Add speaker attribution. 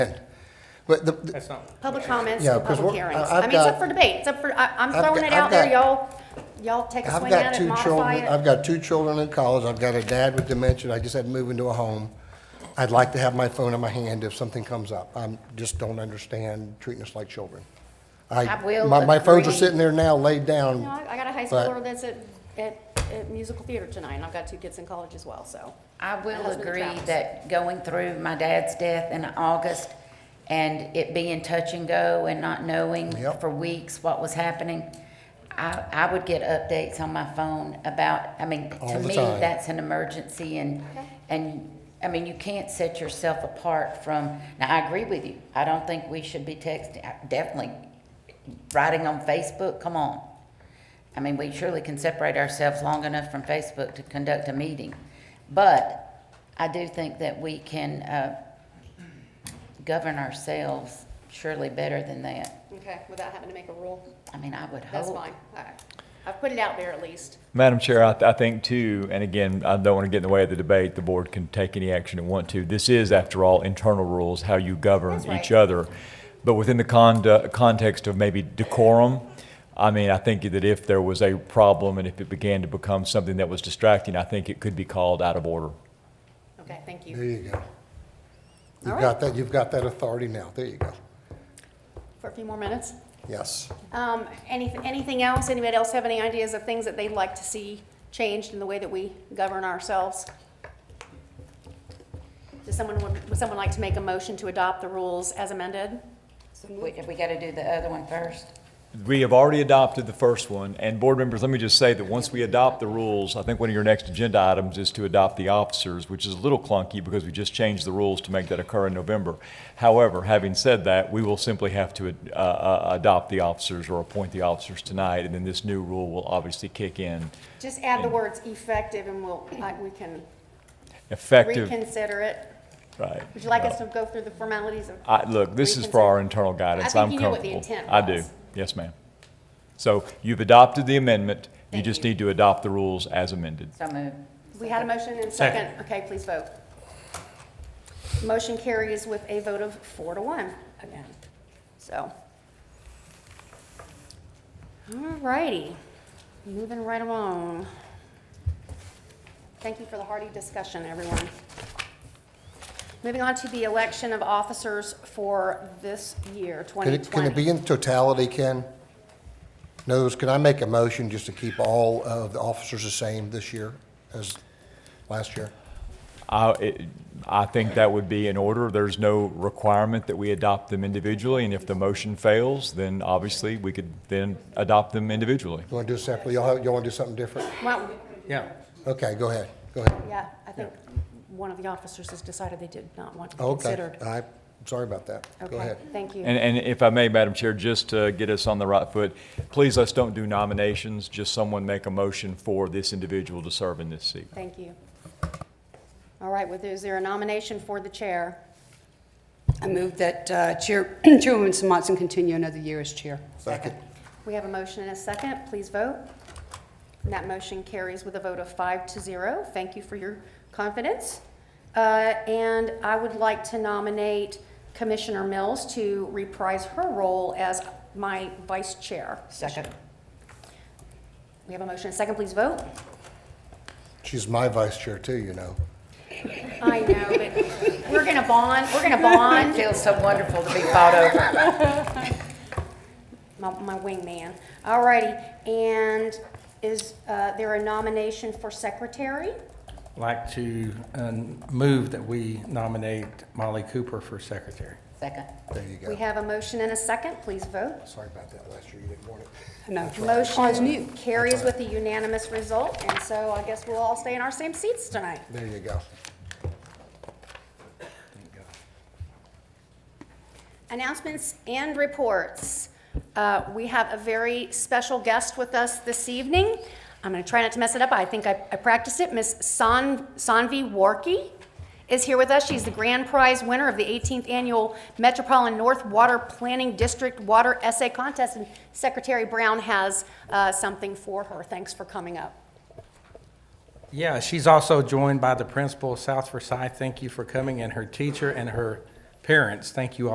Speaker 1: But the,
Speaker 2: That's not.
Speaker 3: Public comments,
Speaker 1: Yeah,
Speaker 3: to
Speaker 1: 'cause
Speaker 3: public
Speaker 1: we're-
Speaker 3: hearings.
Speaker 1: I- I've
Speaker 3: I mean, it's
Speaker 1: got-
Speaker 3: up for debate, it's up for, I, I'm
Speaker 1: I've
Speaker 3: throwing
Speaker 1: got-
Speaker 3: it
Speaker 1: I've
Speaker 3: out there,
Speaker 1: got-
Speaker 3: y'all, y'all take a
Speaker 1: I've
Speaker 3: swing at
Speaker 1: got
Speaker 3: it,
Speaker 1: two
Speaker 3: modify
Speaker 1: children, I've
Speaker 3: it.
Speaker 1: got two children in college, I've got a dad with dementia, I just had to move into a home. I'd like to have my phone in my hand if something comes up. I just don't understand treating us like children.
Speaker 3: I will
Speaker 1: My, my phones are
Speaker 3: agree.
Speaker 1: sitting there now laid
Speaker 3: You know,
Speaker 1: down.
Speaker 3: I I got a high
Speaker 1: But-
Speaker 3: schooler that's at, at, at musical theater tonight, and I've got two kids in college as well, so.
Speaker 4: I will
Speaker 3: husband
Speaker 4: agree
Speaker 3: travels.
Speaker 4: that going through my dad's death in August and it being touch and go and not knowing
Speaker 1: Yep.
Speaker 4: for weeks what was happening, I, I would get updates on my phone about, I mean,
Speaker 1: All
Speaker 4: to
Speaker 1: the
Speaker 4: me,
Speaker 1: time.
Speaker 4: that's an emergency and, and, I mean, you can't set yourself apart from, now, I agree with you. I don't think we should be texting, I- definitely writing on Facebook, come on. I mean, we surely can separate ourselves long enough from Facebook to conduct a meeting. But I do think that we can uh, govern ourselves surely better than that.
Speaker 3: Okay, without having to make a rule,
Speaker 4: I mean, I would hope.
Speaker 3: that's fine, all right. I've put it out there at least.
Speaker 5: Madam Chair, I, I think too, and again, I don't want to get in the way of the debate. The board can take any action it want to. This is, after all, internal rules, how you govern
Speaker 3: That's right.
Speaker 5: each other. But within the condu context of maybe decorum, I mean, I think that if there was a problem and if it began to become something that was distracting, I think it could be called out of order.
Speaker 3: Okay, thank
Speaker 1: There
Speaker 3: you.
Speaker 1: you go.
Speaker 3: All
Speaker 1: You've
Speaker 3: right.
Speaker 1: got that, you've got that authority now. There you go.
Speaker 3: For a few more minutes.
Speaker 1: Yes.
Speaker 3: Um, anything, anything else? Anybody else have any ideas of things that they'd like to see changed in the way that we govern ourselves? Does someone, would would someone like to make a motion to adopt the rules as amended?
Speaker 4: We, we got to do the other one first.
Speaker 5: We have already adopted the first one, and board members, let me just say that once we adopt the rules, I think one of your next agenda items is to adopt the officers, which is a little clunky because we just changed the rules to make that occur in November. However, having said that, we will simply have to uh, uh, adopt the officers or appoint the officers tonight, and then this new rule will obviously kick in
Speaker 3: Just add the words effective and we'll, I- we can
Speaker 5: effective.
Speaker 3: reconsider it.
Speaker 5: Right.
Speaker 3: Would you like us to go through the formalities of?
Speaker 5: I, look, this is for our internal guidance.
Speaker 3: I
Speaker 5: I'm
Speaker 3: think you knew
Speaker 5: comfortable.
Speaker 3: what the intent
Speaker 5: I do.
Speaker 3: was.
Speaker 5: Yes, ma'am. So you've adopted the amendment. You
Speaker 3: Thank
Speaker 5: just
Speaker 3: you.
Speaker 5: need to adopt the rules as amended.
Speaker 4: So move.
Speaker 3: We had a motion and a second. Okay, please vote. Motion carries with a vote of four to one again, so. All righty, moving right along. Thank you for the hearty discussion, everyone. Moving on to the election of officers for this year,
Speaker 1: Can it, can it be
Speaker 3: 2020.
Speaker 1: in totality, Ken? In other words, can I make a motion just to keep all of the officers the same this year as last year?
Speaker 5: I, it- I think that would be in order. There's no requirement that we adopt them individually, and if the motion fails, then obviously we could then adopt them individually.
Speaker 1: You want to do it separately? Y'all, have- y'all want to do something different?
Speaker 3: Well,
Speaker 2: Yeah.
Speaker 1: Okay, go ahead, go ahead.
Speaker 3: yeah, I think one of the officers has decided they did not want to be
Speaker 1: Okay,
Speaker 3: considered.
Speaker 1: I'm sorry about that. Go
Speaker 3: Okay,
Speaker 1: ahead.
Speaker 3: Thank you.
Speaker 5: And, and if I may, Madam Chair, just to get us on the right foot, please let's don't do nominations, just someone make a motion for this individual to serve in this seat.
Speaker 3: Thank you. All right, well, is there a nomination for the chair?
Speaker 6: I move that uh, Chair- Chairwoman Samantson continue another year as chair.
Speaker 1: Second.
Speaker 3: We have a motion and a second. Please vote. And that motion carries with a vote of five to zero. Thank you for your confidence. Uh, And I would like to nominate Commissioner Mills to reprise her role as my vice chair.
Speaker 6: Second.
Speaker 3: We have a motion and a second. Please vote.
Speaker 1: She's my vice chair too, you know.
Speaker 3: I know, but we're going to bond, we're going to bond.
Speaker 4: It feels so wonderful to be fought over.
Speaker 3: my, my wingman. All righty, and is uh, there a nomination for secretary?
Speaker 2: Like to um, move that we nominate Molly Cooper for secretary.
Speaker 4: Second.
Speaker 1: There you go.
Speaker 3: We have a motion and a second, please vote.
Speaker 1: Sorry about that last year, you didn't want it.
Speaker 6: No.
Speaker 3: Motion carries with a unanimous result, and so I guess we'll all stay in our same seats tonight.
Speaker 1: There you go.
Speaker 3: Announcements and reports. Uh, We have a very special guest with us this evening. I'm going to try not to mess it up. I think I I practiced it. Miss San- Sanvi Warkey is here with us. She's the grand prize winner of the 18th Annual Metropolitan North Water Planning District Water Essay Contest, and Secretary Brown has uh, something for her. Thanks for coming up.
Speaker 2: Yeah, she's also joined by the principal of South Versailles. Thank you for coming, and her teacher and her parents. Thank you all.